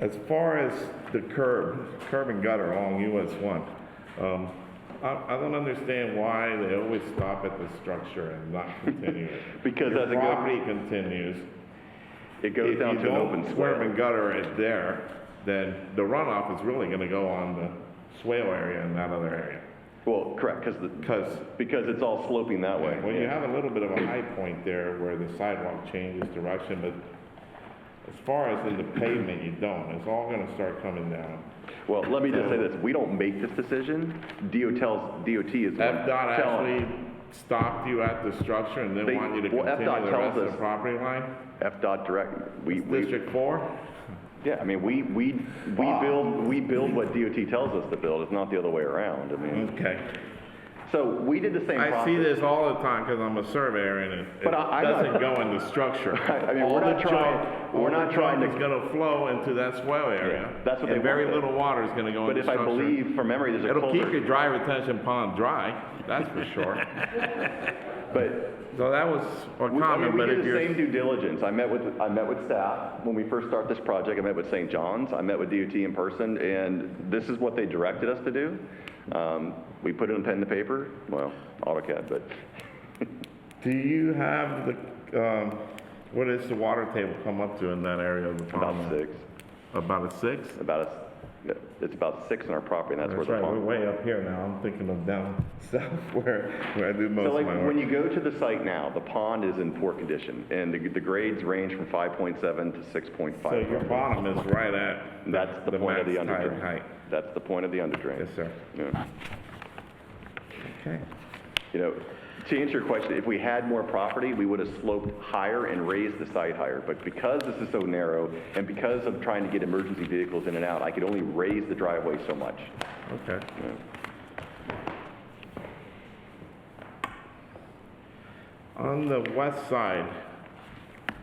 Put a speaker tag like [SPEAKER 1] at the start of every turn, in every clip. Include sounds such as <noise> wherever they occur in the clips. [SPEAKER 1] As far as the curb, curb and gutter along US one, um, I, I don't understand why they always stop at the structure and not continue it.
[SPEAKER 2] <laughs> Because
[SPEAKER 1] Your
[SPEAKER 2] as it goes-
[SPEAKER 1] Property continues.
[SPEAKER 2] It goes down to an open
[SPEAKER 1] If you don't curb and
[SPEAKER 2] square.
[SPEAKER 1] gutter it there, then the runoff is really gonna go on the swale area and that other area.
[SPEAKER 2] Well, correct, because the,
[SPEAKER 1] Cause,
[SPEAKER 2] because it's all sloping that way.
[SPEAKER 1] well, you have a little bit of a high point there where the sidewalk changes direction, but as far as in the pavement, you don't. It's all gonna start coming down.
[SPEAKER 2] Well, let me just say this, we don't make this decision, DOT tells, DOT is. the one
[SPEAKER 1] FDOT
[SPEAKER 2] tell-
[SPEAKER 1] actually stopped you at the structure and
[SPEAKER 2] They-
[SPEAKER 1] then want you to
[SPEAKER 2] well,
[SPEAKER 1] continue
[SPEAKER 2] FDOT
[SPEAKER 1] the
[SPEAKER 2] tells
[SPEAKER 1] rest of the
[SPEAKER 2] us-
[SPEAKER 1] property line?
[SPEAKER 2] FDOT direct, we, we,
[SPEAKER 1] District four?
[SPEAKER 2] yeah, I mean, we, we, we build, we build what DOT tells us to build, it's not the other way around, I mean.
[SPEAKER 1] Okay.
[SPEAKER 2] So we did the same process.
[SPEAKER 1] Mm-hmm. I see this all the time because I'm a surveyor and it- it
[SPEAKER 2] But I- I'm not-
[SPEAKER 1] doesn't go in the structure.
[SPEAKER 2] I mean,
[SPEAKER 1] All
[SPEAKER 2] <laughs> we're
[SPEAKER 1] the
[SPEAKER 2] not trying-
[SPEAKER 1] junk-
[SPEAKER 2] we're not trying to-
[SPEAKER 1] All the junk is gonna flow into that swell area.
[SPEAKER 2] Yeah, that's what they
[SPEAKER 1] And very
[SPEAKER 2] want there.
[SPEAKER 1] little water is gonna go in
[SPEAKER 2] But
[SPEAKER 1] the
[SPEAKER 2] if I
[SPEAKER 1] structure.
[SPEAKER 2] believe from memory, there's a
[SPEAKER 1] It'll keep
[SPEAKER 2] culvert,
[SPEAKER 1] your dry retention pond dry, that's for
[SPEAKER 2] <laughs>
[SPEAKER 1] sure.
[SPEAKER 2] but
[SPEAKER 1] So that was a
[SPEAKER 2] We- I
[SPEAKER 1] comment,
[SPEAKER 2] mean, we
[SPEAKER 1] but
[SPEAKER 2] did
[SPEAKER 1] if
[SPEAKER 2] the same
[SPEAKER 1] you're,
[SPEAKER 2] due diligence. I met with, I met with staff when we first started this project. I met with St. John's. I met with DOT in person, and this is what they directed us to do. Um, we put it in pen to paper, well, AutoCAD, but
[SPEAKER 1] do you have the, um, what is the water table come up to in that area of the
[SPEAKER 2] about
[SPEAKER 1] pond?
[SPEAKER 2] six,
[SPEAKER 1] About a six?
[SPEAKER 2] about a, it's about six in our property, and that's where
[SPEAKER 1] That's
[SPEAKER 2] the
[SPEAKER 1] right, we're
[SPEAKER 2] pond.
[SPEAKER 1] way up here now, I'm thinking of down <laughs> south where, where I do
[SPEAKER 2] So
[SPEAKER 1] most of
[SPEAKER 2] like,
[SPEAKER 1] my work.
[SPEAKER 2] when you go to the site now, the pond is in poor condition, and the, the grades range from five point seven to six point
[SPEAKER 1] So
[SPEAKER 2] five.
[SPEAKER 1] your bottom is right at the-
[SPEAKER 2] That's the point of the
[SPEAKER 1] max tide
[SPEAKER 2] underdrain.
[SPEAKER 1] height.
[SPEAKER 2] That's the point of the underdrain.
[SPEAKER 1] Yes, sir.
[SPEAKER 2] Yeah.
[SPEAKER 1] Okay.
[SPEAKER 2] You know, to answer your question, if we had more property, we would have sloped higher and raised the site higher. But because this is so narrow and because I'm trying to get emergency vehicles in and out, I could only raise the driveway so much.
[SPEAKER 1] Okay. On the west side,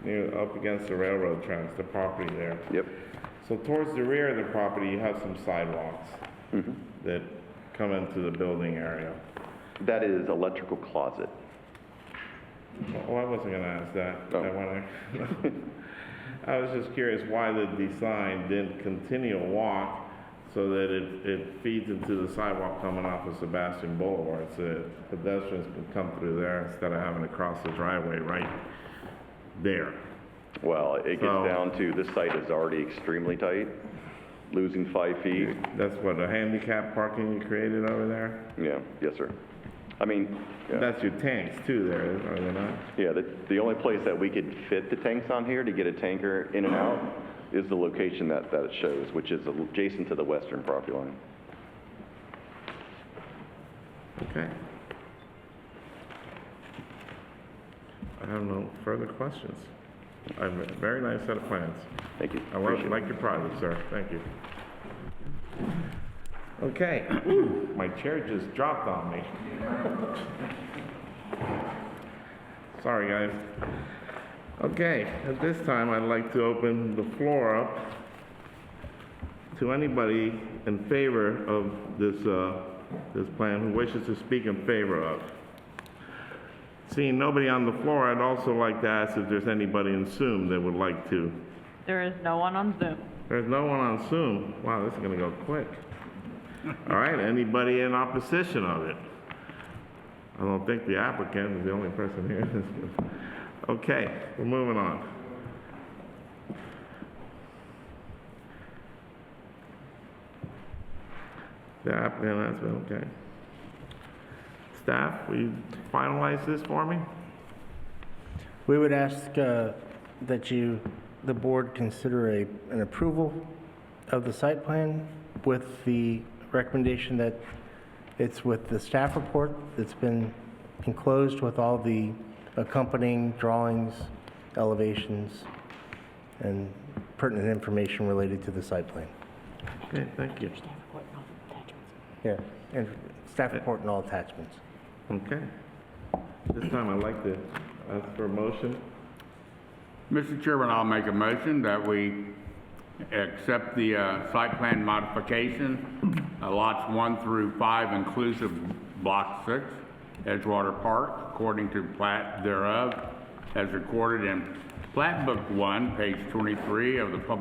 [SPEAKER 1] near, up against the railroad tracks, the property there.
[SPEAKER 2] Yep.
[SPEAKER 1] So towards the rear of the property, you have some sidewalks
[SPEAKER 2] Mm-hmm.
[SPEAKER 1] that come into the building area.
[SPEAKER 2] That is electrical closet.
[SPEAKER 1] Oh, I wasn't gonna ask that.
[SPEAKER 2] Oh.
[SPEAKER 1] I wanna- <laughs> I was just curious why the design didn't continue a walk so that it, it feeds into the sidewalk coming off of Sebastian Boulevard, so that pedestrians can come through there instead of having to cross the driveway right there.
[SPEAKER 2] Well, it gets
[SPEAKER 1] So-
[SPEAKER 2] down to this site is already extremely tight, losing five feet.
[SPEAKER 1] That's what, a handicap parking you created over there?
[SPEAKER 2] Yeah, yes, sir. I mean, yeah.
[SPEAKER 1] That's your tanks too there, are they not?
[SPEAKER 2] Yeah, the, the only place that we could fit the tanks on here to get a tanker in and out is the location that, that it shows, which is adjacent to the western property line.
[SPEAKER 1] Okay. I have no further questions. I have a very nice set of plans.
[SPEAKER 2] Thank you.
[SPEAKER 1] I like,
[SPEAKER 2] Appreciate it.
[SPEAKER 1] like your project, sir. Thank you. Okay. <clears throat> My chair just dropped on me. Sorry, guys. Okay, at this time, I'd like to open the floor up to anybody in favor of this, uh, this plan who wishes to speak in favor of. Seeing nobody on the floor, I'd also like to ask if there's anybody in Zoom that would like to.
[SPEAKER 3] There is no one on Zoom.
[SPEAKER 1] There's no one on Zoom. Wow, this is gonna go quick. All right, anybody in opposition of it? I don't think the applicant is the only person here. <laughs> Okay, we're moving on. The applicant has been, okay. Staff, will you finalize this for me?
[SPEAKER 4] We would ask uh, that you, the board, consider a, an approval of the site plan with the recommendation that it's with the staff report that's been enclosed with all the accompanying drawings, elevations, and pertinent information related to the site plan.
[SPEAKER 1] Okay, thank you.
[SPEAKER 4] Yeah. And staff report and all attachments.
[SPEAKER 1] Okay. This time I'd like to ask for a motion.
[SPEAKER 5] Mr. Chairman, I'll make a motion that we accept the uh, site plan modification, uh, lots one through five inclusive, block six, Edgewater Park, according to plat thereof, as recorded in plat book one, page 23 of the public